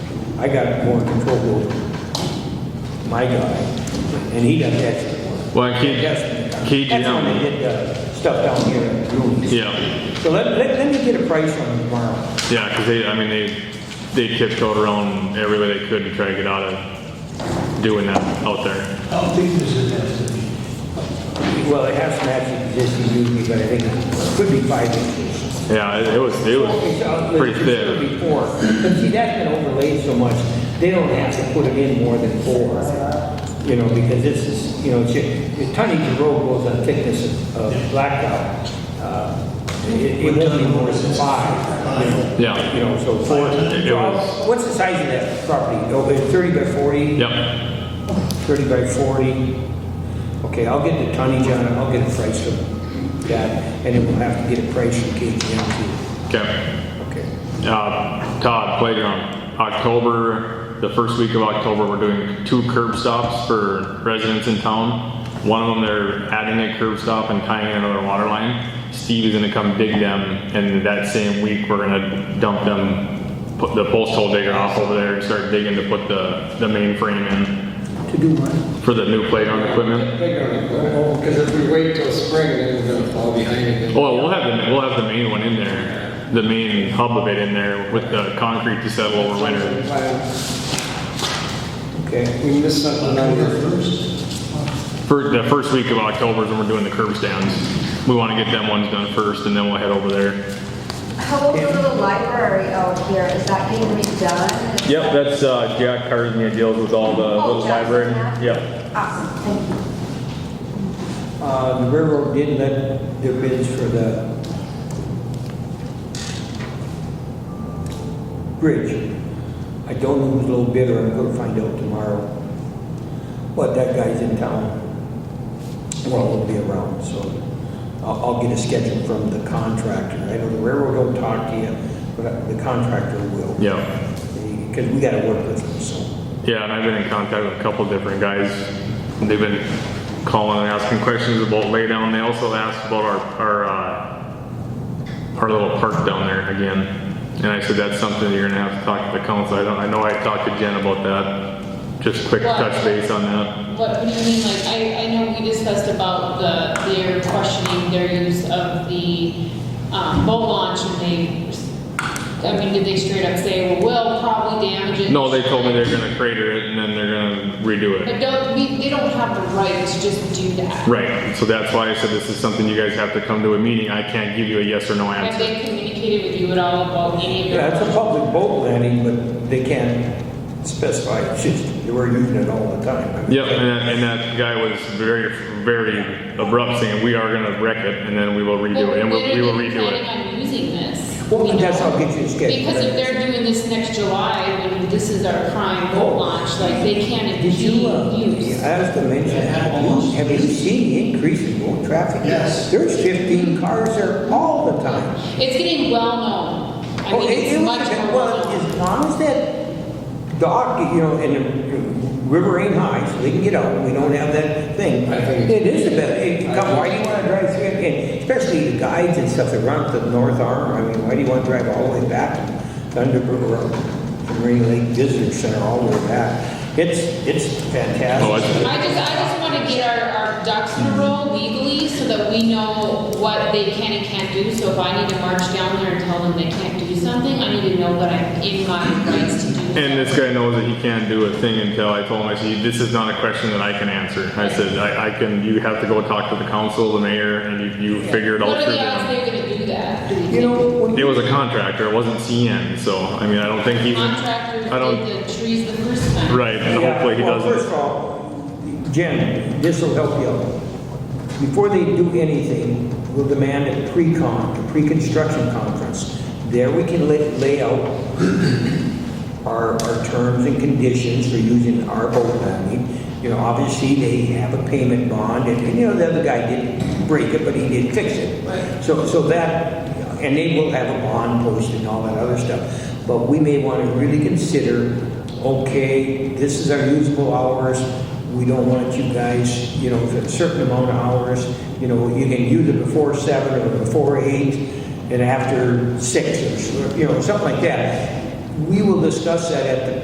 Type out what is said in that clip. I got more control over my guy, and he doesn't actually work. Well, he- Yes. he That's when down- they did the stuff down here at Ruins. Yeah, So let, let, let me get a price on tomorrow. yeah, because they, I mean, they, they tiptoed around every way they could to try to get out of doing that out there. I don't think this is necessary. Well, it has some actually existing usually, but I think it could be five inches. Yeah, it it was, it It's out- was uh, it's pretty thick. considerably poor. But see, that's been overlaid so much, they don't have to put it in more than four, you know, because this is, you know, it's, the tonnage of road goes on thickness of- of blacktop. Uh, It, it won't be more than five, you know. Yeah. You know, so four, It was- what's the size of that property? Oh, it's thirty by forty? Yep, Thirty by forty? Okay, I'll get the tonnage on it, I'll get a price from that, and then we'll have to get a price from KGM too. okay. Okay. Uh, Todd, playground, October, the first week of October, we're doing two curb stops for residents in town. One of them, they're adding a curb stop and tying in another water line. Steve is gonna come dig them, and that same week, we're gonna dump them, put the post hole digger off over there and start digging to put the, the main frame in To do what? for the new playground equipment. Because if we wait till spring, then we're gonna fall behind again. Oh, Well, we'll have the, we'll have the main one in there, the main hub of it in there with the concrete to settle over winter. Okay. We missed something on the first. For the first week of October is when we're doing the curb stands. We want to get them ones done first and then we'll head over there. How old is the library out here? Is that getting redone? Yep, that's uh, Jack Carson that deals with all the Oh, little Jack's library. back? Yep. Awesome, Ah, thank you. Uh, the railroad didn't let their bids for the bridge. I don't know who's a little bidder, I'm gonna find out tomorrow. But that guy's in town. Well, he'll be around, so I'll, I'll get a schedule from the contractor. I know the railroad don't talk to you, but the contractor will. Yep. Because we gotta work with them, so. Yeah, and I've been in contact with a couple different guys. They've been calling and asking questions about laydown. They also asked about our, our, uh, our little park down there again. And I said, that's something you're gonna have to talk to the council. I don't, I know I talked to Jen about that. Just quick What? touch base on that. What, what do you mean, like, I, I know we discussed about the, their questioning their use of the, um, boat launch, and they, I mean, did they straight up say, well, we'll probably damage it? No, they told me they're gonna crater it and then they're gonna redo But it. don't, we, they don't have the right to just do that. Right, so that's why I said this is something you guys have to come to a meeting, I can't give you a yes or no Have answer. they communicated with you at all about any of Yeah, their? it's a public boat landing, but they can't specify, it's just, they were using it all the time. Yep, and that, and that guy was very, very abrupt saying, we are gonna wreck it and then we will redo it, and we'll- we will redo They're it. planning on using this. Well, you that's know? how it gets you scheduled. Because if they're doing this next July, when this is our prime boat launch, like, they can't be Did you, uh, used. I have to mention, have you, have you seen the increase in road traffic? Yes. There's fifteen cars there all the time. It's getting well known. I Well, mean, it- it's Oh, it was- much more well Well, known. as long as that dock, you know, and the river ain't high, so they can get out, we don't have that thing. I think It is the best, I it, come, why do you wanna drive through, it? and especially the guides and stuff that run up the north arm, I mean, why do you wanna drive all the way back to Thunderbird or from Rainy Lake Visitor Center all the way back? It's, it's Oh, I see. fantastic. I just, I just want to get our, our ducks in a row legally so that we know what they can and can't do. So if I need to march down there and tell them they can't do something, I need to know what I'm in my rights to do. And this guy knows that he can't do a thing until I told him, I said, this is not a question that I can answer. I said, I, I can, you have to go talk to the council, the mayor, and you, you figure it all What are through the odds them. they're gonna do that? Do we You know, think? when It you- was a contractor, it wasn't CN, so, I mean, I don't think he, Contractors I don't, did the trees the first time. Right, and Yeah, hopefully he well, First doesn't. of all, Jen, this will help you out. Before they do anything, we'll demand a pre-con, a pre-construction conference. There we can lay, lay out our, our terms and conditions for using our boat landing. You know, obviously, they have a payment bond, and, and, you know, the other guy didn't break it, but he did fix it. So, so that, and they will have a bond posted and all that other stuff. But we may want to really consider, okay, this is our usable hours, we don't want you guys, you know, for a certain amount of hours, you know, you can use it before seven or before eight and after six, or, you know, something like that. We will discuss that at the